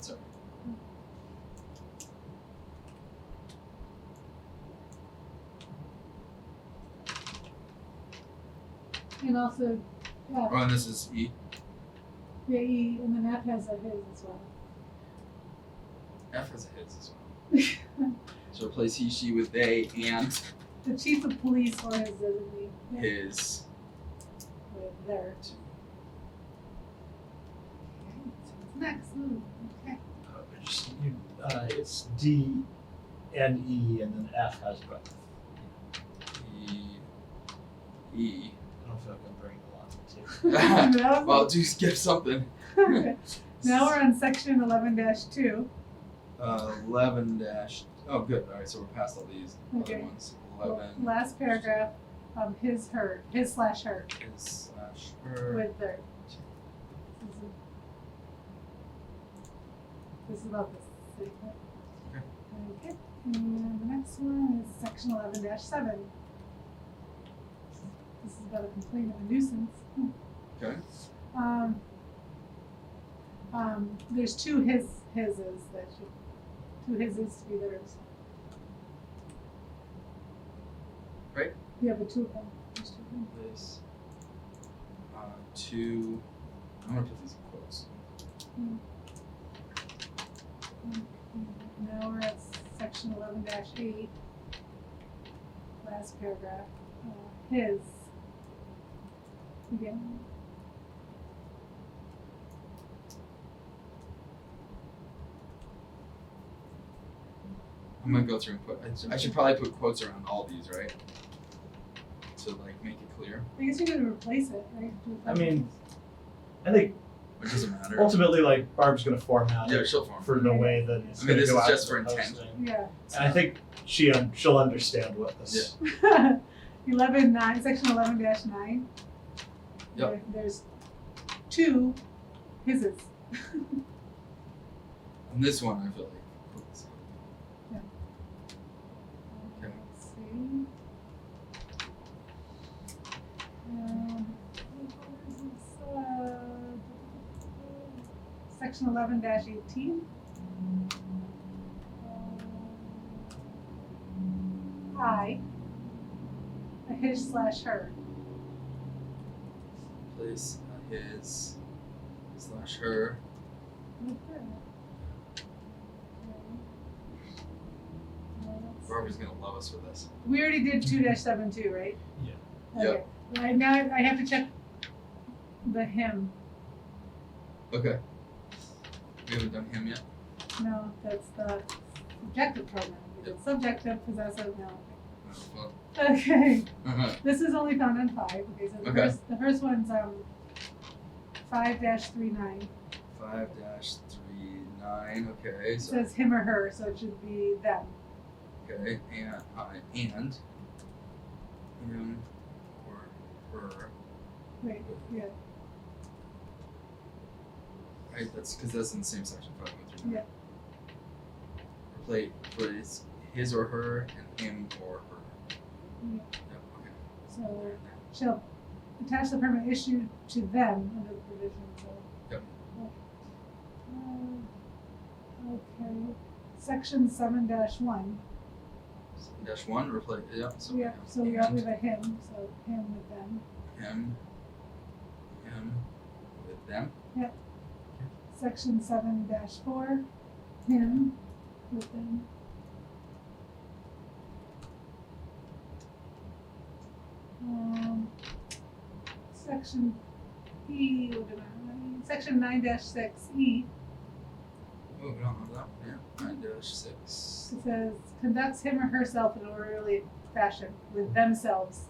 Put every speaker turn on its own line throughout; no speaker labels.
So
And also, uh,
oh, and this is E.
yeah, E, and then F has a his as well.
F has a his as well. so replace he she with they and
The chief of police or his designee yeah,
his.
with their. Okay, so what's next? Ooh, okay.
Uh, just- you- uh, It's D and E and then F has breath.
E. E.
I don't feel like I'm bringing a lot to the table.
That
Well,
was-
do skip something.
okay. Now we're on section eleven two.
Uh, Eleven dash. Oh, good. All right, so we're past all these
Okay.
other ones. Eleven
Last paragraph, um, his, her, his slash her
is uh, slash her.
with their. This is- This is about the city. clerk. Okay, and the next one is section eleven seven. This is about a complaint of a nuisance. Hmm.
Okay.
Um, um, there's two his, hises that should, two hises to be theirs.
Right.
Yeah, but two of them, there's two of them.
This. Uh, two. I'm gonna put these in quotes.
Now we're at section eleven dash eight. Last paragraph, uh, his. Again.
I'm gonna go through and put. I- I should probably put quotes around all these, right? To like make it clear,
I guess you're gonna replace it, right?
I mean, I think
which doesn't matter.
ultimately, like Barb's gonna format
Yeah,
it
she'll form.
for the way that it's
I mean,
gonna
this
go
is
out
just
to
for
the
intent.
posting.
Yeah.
It's
And I
not-
think she um, she'll understand what this.
Eleven nine, section eleven dash nine.
Yep.
There- There's two hises.
On this one, I feel like. quotes. Okay.
Let's see. Um, uh, Section eleven dash eighteen. I. A his slash her.
Place uh, his slash her.
Okay.
Barbara's gonna love us for this.
We already did two dash seven two, right?
Yeah.
Okay. Right now, I have to check the him.
Okay. We haven't done him yet.
No, that's the subjective pronoun. We did Subjective, possessive, no.
Oh, well.
Okay,
Uh-huh.
this is only found on five. Okay, so the
Okay.
first, the first one's um five dash three nine.
Five dash three nine. Okay.
It
So
says him or her, so it should be them.
okay. And I and him or her.
Wait, yeah,
Right. That's because that's in the same section. Five one three nine.
Yeah.
Replace replace his or her and him or her.
yeah.
Yep. Okay.
So shall attach the permit issued to them under the provisions of.
Yep.
Uh, Okay, section seven dash one.
Seven dash one. Replace. Yep. So
Yeah, so we have,
and
we have a him, so him with them.
him. Him with them.
Section seven dash four, him with them. Um, section E, what did I- section nine dash six E,
Oh, we don't have that. one, Yeah. Nine dash six.
it says conducts him or herself in orderly fashion with themselves,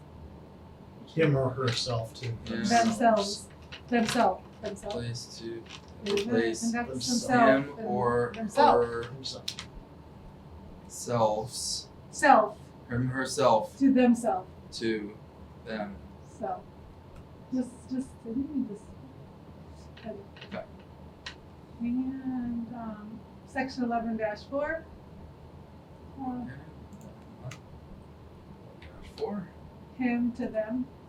Him or herself to
Yeah.
themselves, themselves, themselves.
Place to
Conducts
place
themselves
him
in-
or
themselves,
Himself.
herselves,
self
him herself
to themselves.
to them.
So, just, just, I think we just.
Okay.
And, um, section eleven dash four. Uh,
Four.
him to them,
Uh,